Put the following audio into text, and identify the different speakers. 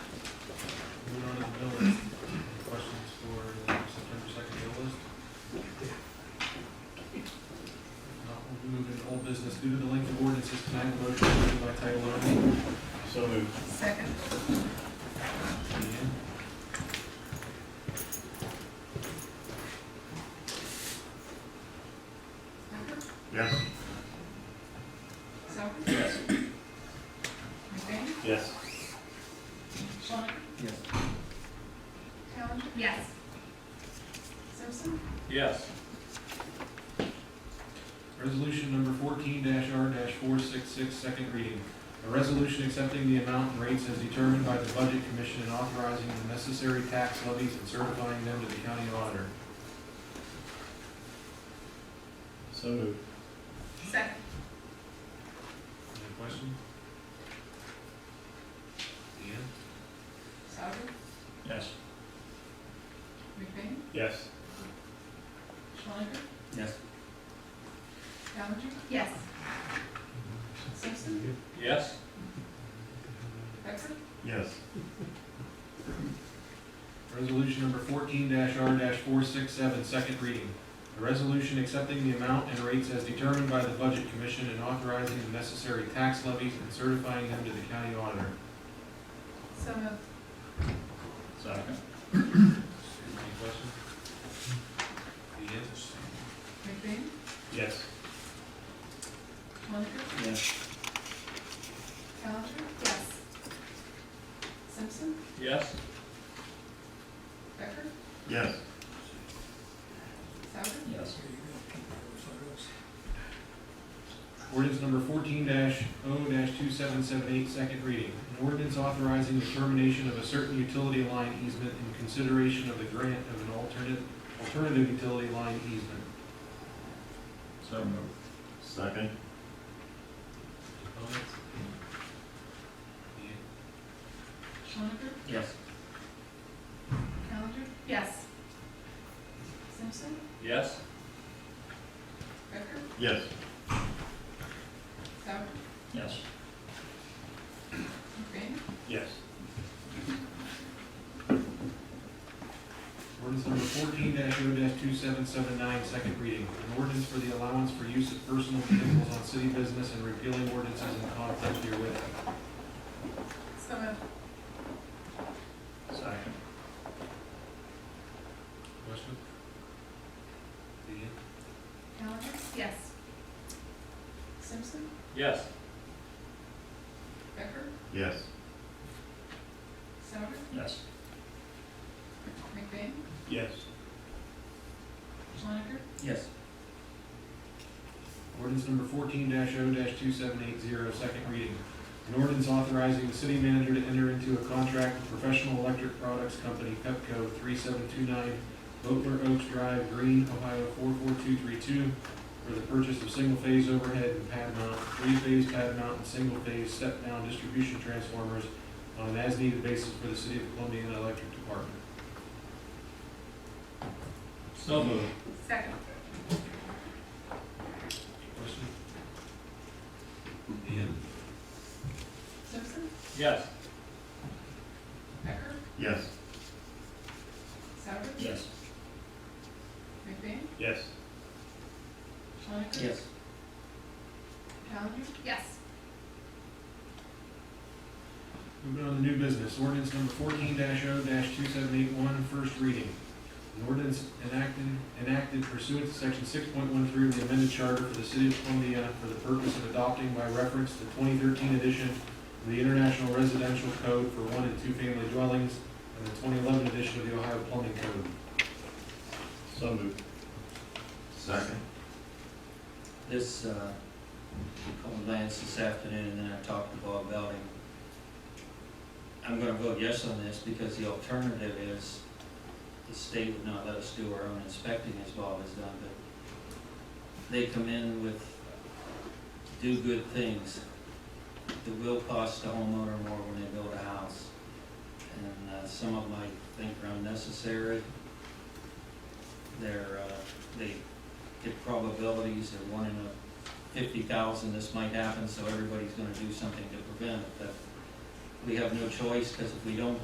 Speaker 1: Yes.
Speaker 2: Sauer,
Speaker 1: Yes.
Speaker 2: McBain,
Speaker 1: Yes.
Speaker 2: Schwank,
Speaker 3: Yes.
Speaker 2: Callan,
Speaker 4: Yes.
Speaker 2: Simpson,
Speaker 1: Yes.
Speaker 5: Resolution number fourteen R four six six, second reading. A resolution accepting the amount and rates as determined by the Budget Commission and authorizing the necessary tax levies and certifying them to the county auditor.
Speaker 1: So moved.
Speaker 4: Second.
Speaker 5: Any questions? Deanne?
Speaker 2: Sauer,
Speaker 1: Yes.
Speaker 2: McBain,
Speaker 1: Yes.
Speaker 2: Schwank,
Speaker 3: Yes.
Speaker 2: Callan,
Speaker 4: Yes.
Speaker 2: Simpson,
Speaker 1: Yes.
Speaker 2: Becker,
Speaker 1: Yes.
Speaker 5: Resolution number fourteen R four six seven, second reading. A resolution accepting the amount and rates as determined by the Budget Commission and authorizing the necessary tax levies and certifying them to the county auditor.
Speaker 2: so moved.
Speaker 1: Second.
Speaker 5: Any questions? Deanne?
Speaker 2: McBain,
Speaker 1: Yes.
Speaker 2: Schwank,
Speaker 3: Yes.
Speaker 2: Callan,
Speaker 4: Yes.
Speaker 2: Simpson,
Speaker 1: Yes.
Speaker 2: Becker,
Speaker 1: Yes.
Speaker 2: Sauer,
Speaker 3: Yes.
Speaker 5: Ordinance number fourteen 0 two seven seven eight, second reading. An ordinance authorizing the termination of a certain utility line easement in consideration of the grant of an alternative, alternative utility line easement.
Speaker 1: So moved. Second.
Speaker 5: Comments?
Speaker 2: Schwank,
Speaker 3: Yes.
Speaker 2: Callan,
Speaker 4: Yes.
Speaker 2: Simpson,
Speaker 1: Yes.
Speaker 2: Becker,
Speaker 1: Yes.
Speaker 2: Sauer,
Speaker 3: Yes.
Speaker 2: McBain,
Speaker 1: Yes.
Speaker 5: Ordinance number fourteen 0 two seven seven nine, second reading. An ordinance for the allowance for use of personal vehicles on city business and repealing ordinances in conflict therewith.
Speaker 2: so moved.
Speaker 1: Second.
Speaker 5: Question? Deanne?
Speaker 2: Callan,
Speaker 4: Yes.
Speaker 2: Simpson,
Speaker 1: Yes.
Speaker 2: Becker,
Speaker 1: Yes.
Speaker 2: Sauer,
Speaker 3: Yes.
Speaker 2: McBain,
Speaker 1: Yes.
Speaker 2: Schwank,
Speaker 3: Yes.
Speaker 5: Ordinance number fourteen 0 two seven eight zero, second reading. An ordinance authorizing the city manager to enter into a contract with Professional Electric Products Company, Pepco, three seven two nine, Boatler Oaks Drive, Green, Ohio, four four two three two, for the purchase of single-phase overhead and pad mount, three-phase pad mount, and single-phase step-down distribution transformers on an as-needed basis for the city of Columbia Electric Department.
Speaker 1: So moved.
Speaker 4: Second.
Speaker 5: Question? Ian?
Speaker 2: Simpson,
Speaker 1: Yes.
Speaker 2: Becker,
Speaker 1: Yes.
Speaker 2: Sauer,
Speaker 3: Yes.
Speaker 2: McBain,
Speaker 1: Yes.
Speaker 2: Schwank,
Speaker 3: Yes.
Speaker 2: Callan,
Speaker 4: Yes.
Speaker 5: Moving on to new business, ordinance number fourteen 0 two seven eight one, first reading. An ordinance enacted, enacted pursuant to section six point one three of the amended charter for the city of Columbia for the purpose of adopting by reference the twenty thirteen edition of the International Residential Code for one and two family dwellings and the twenty eleven edition of the Ohio Plumbing Code.
Speaker 1: So moved. Second.
Speaker 3: This, uh, called Lance this afternoon, and then I talked to Bob Belding. I'm gonna vote yes on this, because the alternative is the state would not let us do our own inspecting as Bob has done, but they come in with do good things that will cost the homeowner more when they build a house. And, uh, some of them I think are unnecessary. They're, uh, they get probabilities, they're one in a fifty thousand, this might happen, so everybody's gonna do something to prevent it, but we have no choice, because if we don't